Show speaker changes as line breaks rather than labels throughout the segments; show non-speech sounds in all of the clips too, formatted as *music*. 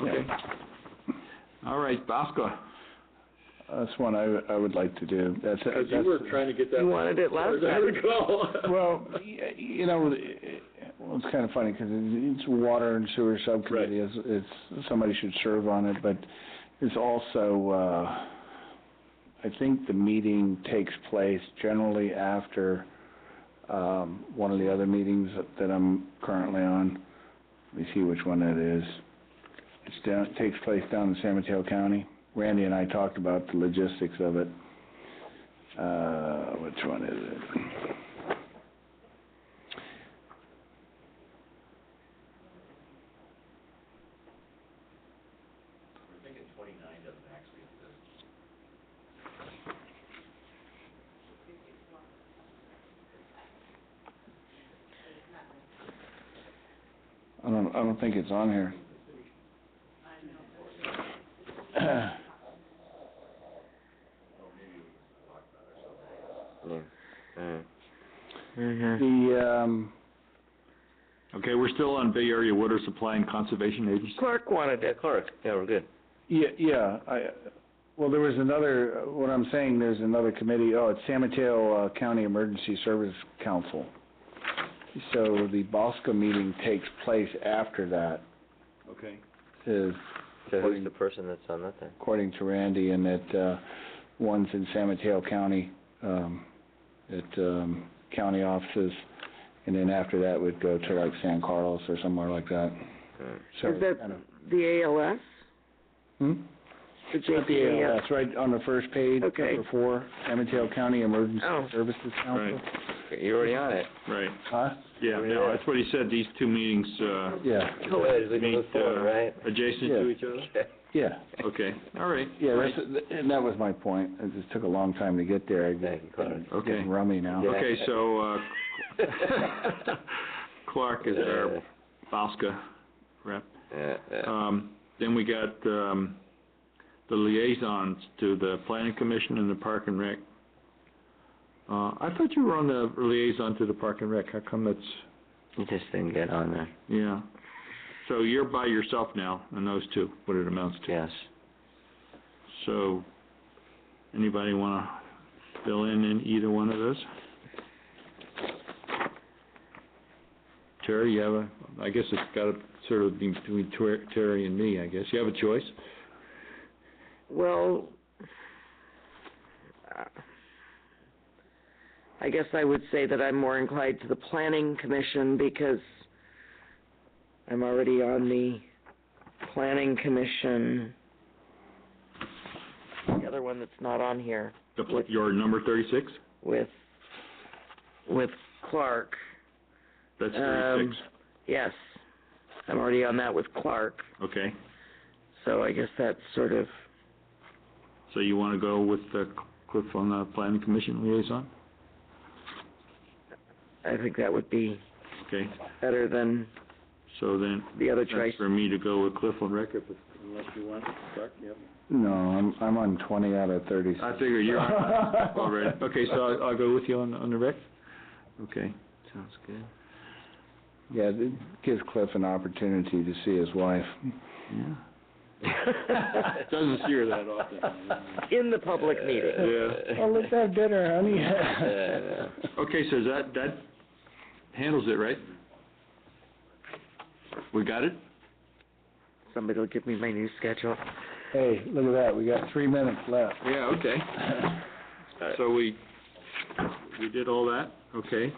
Okay. All right, Bosco.
That's one I, w- I would like to do. That's,
Because you were trying to get that.
You wanted it last
I recall.
*laughs* Well, y- you know, it- well, it's kind of funny because it's water and sewer subcommittee. It's, it's, somebody should serve on it, but it's also, uh, I think the meeting takes place generally after, um, one of the other meetings that- that I'm currently on. Let me see which one that is. It's down, it takes place down in San Mateo County. Randy and I talked about the logistics of it. Uh, which one is it? I don't, I don't think it's on here. *clears throat*
Mm. Mm-hmm.
The, um,
Okay, we're still on Bay Area Water Supply and Conservation Agency.
Clark wanted it. Clark, yeah, we're good.
yeah, yeah, I, well, there was another, what I'm saying, there's another committee, oh, it's San Mateo uh, County Emergency Service Council. So the Bosco meeting takes place after that,
Okay.
is
So
who's the
who's the person that's on that then?
according to Randy, and that, uh, one's in San Mateo County, um, at, um, county offices, and then after that would go to like San Carlos or somewhere like that.
Mm.
So
Is that
kind of-
the ALS?
Hmm?
The
It's At the
JPAS?
ALS, right on the first page,
Okay.
number four, San Mateo County Emergency
Oh.
Services Council.
Right.
You're already on it.
Right,
Huh?
yeah, no, that's what he said, these two meetings, uh,
Yeah,
Good, we can
meet,
move forward,
uh,
right?
adjacent to each other?
yeah,
Okay, all right.
yeah, that's, and that was my point, it just took a long time to get there, I'm
Thank you, Clark.
Okay.
getting rummy now.
Yeah.
Okay, so, uh, Clark is our Bosco rep.
Yeah, yeah.
Um, then we got, um, the liaisons to the planning commission and the park and rec. Uh, I thought you were on the liaison to the park and rec, how come that's,
You just didn't get on there.
yeah? So you're by yourself now, on those two, what it amounts to.
Yes.
So, anybody wanna fill in in either one of those? Terry, you have a, I guess it's gotta sort of be between Ter- Terry and me, I guess. You have a choice?
Well, uh, I guess I would say that I'm more inclined to the planning commission because I'm already on the planning commission. The other one that's not on here
The pl- Your number thirty-six?
with, with Clark.
That's
Um,
thirty-six,
Yes, I'm already on that with Clark,
okay.
so I guess that's sort of,
So you wanna go with uh, Cliff on the planning commission liaison?
I think that would be
Okay,
better than
so then,
the other choice.
that's
*laughs*
for me to go with Cliff on record, unless you want, Clark, yep.
No, I'm, I'm on twenty out of thirty.
I figure
*laughs*
you're on All right, okay, so I'll, I'll go with you on, on the rec? Okay,
Sounds good.
Yeah, it gives Cliff an opportunity to see his wife.
yeah. Doesn't hear that often.
In the public meeting.
Yeah.
Oh, *laughs* let's have dinner,
Yeah,
honey.
yeah.
Okay, so that, that handles it, right? We got it?
Somebody will give me my new schedule.
Hey, look at that, we got three minutes left.
Yeah, okay.
*laughs*
So we, we did all that, okay.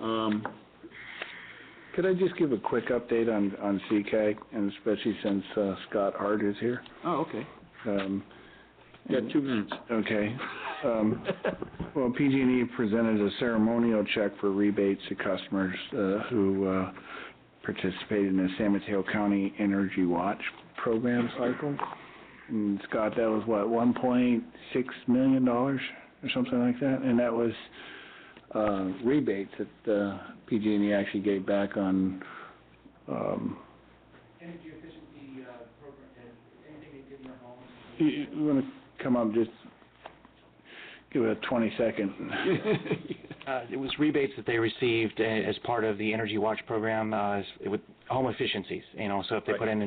Um,
Could I just give a quick update on, on CCAG, and especially since uh, Scott Hart is here?
oh, okay,
Um,
you got two *laughs* minutes.
Okay. Um, Well, PG&E E presented a ceremonial check for rebates to customers uh, who uh, participated in the San Mateo County Energy Watch program cycle. And Scott, that was what, $1.6 million or something like that? And that was uh, rebates that uh, PG&E actually gave back on, um, you you wanna come up, just give it a 20-second.
Uh, it was rebates that they received uh, as part of the Energy Watch program, uh, as- with home efficiencies, you know, so if they put in